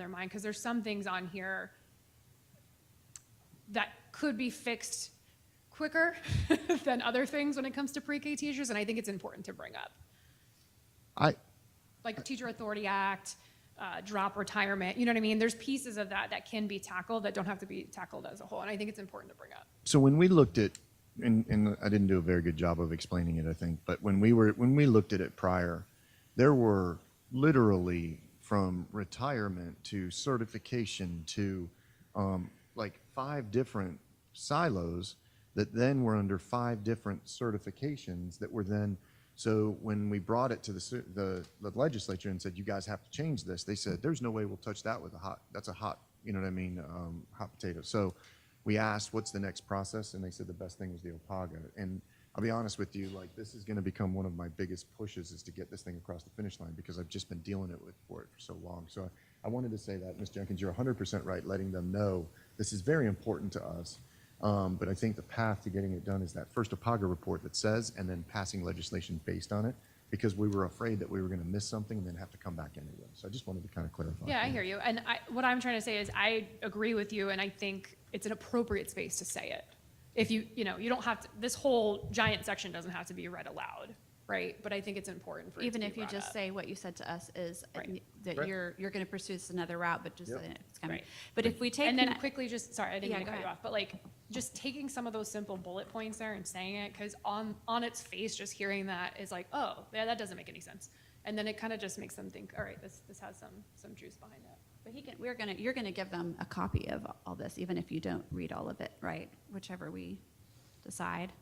their mind, because there's some things on here that could be fixed quicker than other things when it comes to pre-K teachers, and I think it's important to bring up. I, Like Teacher Authority Act, uh, drop retirement, you know what I mean? There's pieces of that that can be tackled that don't have to be tackled as a whole, and I think it's important to bring up. so when we looked at, and, and I didn't do a very good job of explaining it, I think, but when we were, when we looked at it prior, there were literally from retirement to certification to um, like five different silos that then were under five different certifications that were then, so when we brought it to the, cer- the the legislature and said, you guys have to change this, they said, there's no way we'll touch that with a hot, that's a hot, you know what I mean, um, hot potato. So we asked, what's the next process? And they said the best thing was the OPAGA. And I'll be honest with you, like, this is gonna become one of my biggest pushes is to get this thing across the finish line because I've just been dealing it with, for it for so long. So I, I wanted to say that, Ms. Jenkins, you're hundred percent right, letting them know this is very important to us. Um, but I think the path to getting it done is that first APAGA report that says, and then passing legislation based on it, because we were afraid that we were gonna miss something and then have to come back anyway. So I just wanted to kind of clarify. Yeah, I hear you. And I, what I'm trying to say is I agree with you and I think it's an appropriate space to say it. If you, you know, you don't have to, this whole giant section doesn't have to be read aloud, right? But I think it's important for it to Even be if you brought just up. say what you said to us is uh, Right. n- that Right. you're, you're going to pursue this another route, but just, Yep. uh, it's coming. Right. But if we take. And then that- quickly, just, sorry, I didn't Yeah, mean to go cut you ahead. off, but like, just taking some of those simple bullet points there and saying it, because on, on its face, just hearing that is like, oh, yeah, that doesn't make any sense. And then it kind of just makes them think, all right, this, this has some, some juice behind it. But he can, we're going to, you're going to give them a copy of all this, even if you don't read all of it, right? Whichever we decide.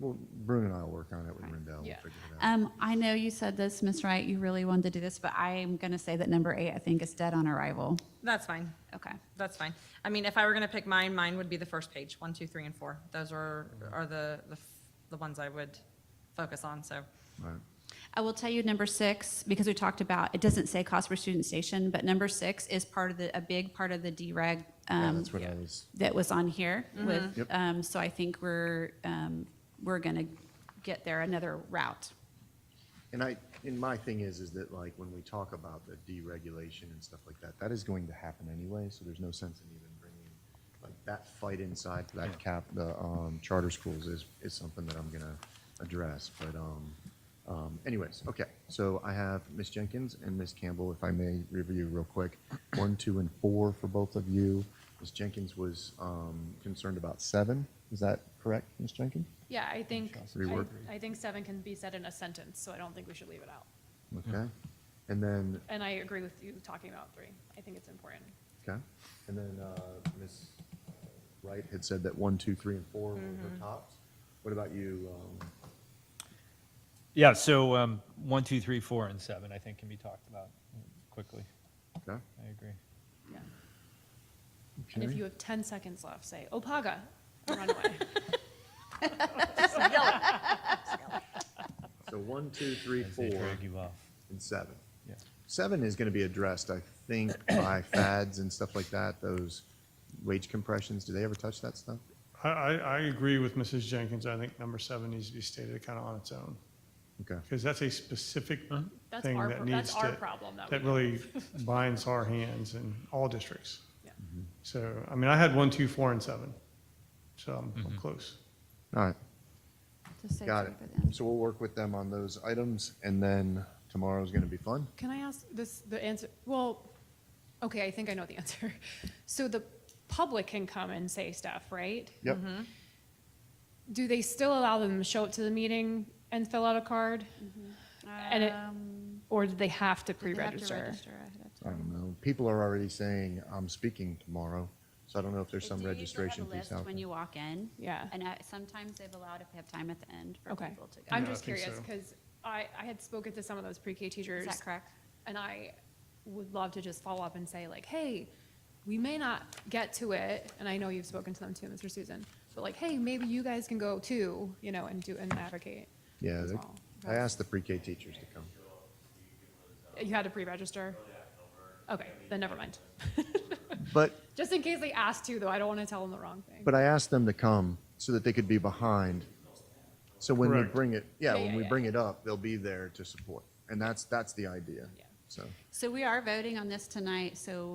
Well, Bruno and I will work on it with Okay. Rendell. We'll Yeah. figure it out. Um, I know you said this, Ms. Wright, you really wanted to do this, but I am going to say that number eight, I think, is dead on arrival. That's fine. Okay. That's fine. I mean, if I were gonna pick mine, mine would be the first page, one, two, three, and four. Those are, are the, the, f- the ones I would focus on, so. Um, Right. I will tell you number six, because we talked about, it doesn't say cost per student station, but number six is part of the, a big part of the dereg. Yeah, um, that's what I was. that was on here Yep. with, um, so I think we're, um, we're gonna get there another route. And I, and my thing is, is that like when we talk about the deregulation and stuff like that, that is going to happen anyway. So there's no sense in even bringing like that fight inside that cap, the um, charter schools is is something that I'm gonna address. But um, um, anyways, okay. So I have Ms. Jenkins and Ms. Campbell. If I may review real quick, one, two, and four for both of you. Ms. Jenkins was um, concerned about seven. Is that correct, Ms. Jenkins? Yeah, I think, Rework. I, I think seven can be said in a sentence, so I don't think we should leave it out. Okay. And then And I agree with you talking about three. I think it's important. Okay. And then uh, Ms. Wright had said that one, two, three, and four were her Mm-hmm. tops. What about you? um, Yeah, so um, one, two, three, four, and seven, I think, can be talked about quickly. Okay. I agree. Yeah. And if Okay. you have 10 seconds left, say, Opaga, run away. So one, two, three, As they four, drag you off. and seven. Yeah. Seven is going to be addressed, I think, by fads and stuff like that, those wage compressions. Do they ever touch that stuff? I, I, I agree with Mrs. Jenkins. I think number seven needs to be stated kind of on its own, Okay. because that's a specific That's thing our, that pro- that's needs our to, problem that that we, really binds our hands in all districts. Yeah. So, I mean, I had one, two, four, and seven, so I'm I'm close. All right. Just say Got three it. for them. So we'll work with them on those items, and then tomorrow's going to be fun. can I ask this, the answer, well, okay, I think I know the answer. So the public can come and say stuff, right? Yep. Mm-hmm. Do they still allow them to show up to the meeting and fill out a card? And it, Um, or do Mm-hmm. they have to do they have to pre-register? register ahead of I time? don't know. People are already saying, I'm speaking tomorrow, so I don't know if there's some They do usually have registration a piece list out When there. you walk in. Yeah. And I- sometimes they've allowed if they have time at the end for Okay. people to go. I'm Yeah, I just think curious, so. because I, I had spoken to some of those pre-K teachers. Is that correct? And I would love to just follow up and say like, hey, we may not get to it, and I know you've spoken to them too, Mr. Susan, but like, hey, maybe you guys can go too, you know, and do, and advocate. Yeah, as they- well. I asked the pre-K teachers to come. You had to pre-register? Oh, Okay, then never mind. But, Just in case they asked you, though, I don't want to tell them the wrong thing. but I asked them to come so that they could be behind. So when we Correct. bring it, yeah, Yeah, when yeah, we yeah, bring it up, they'll be there to support. And that's, that's the idea. Yeah. So. So we are voting on this tonight, so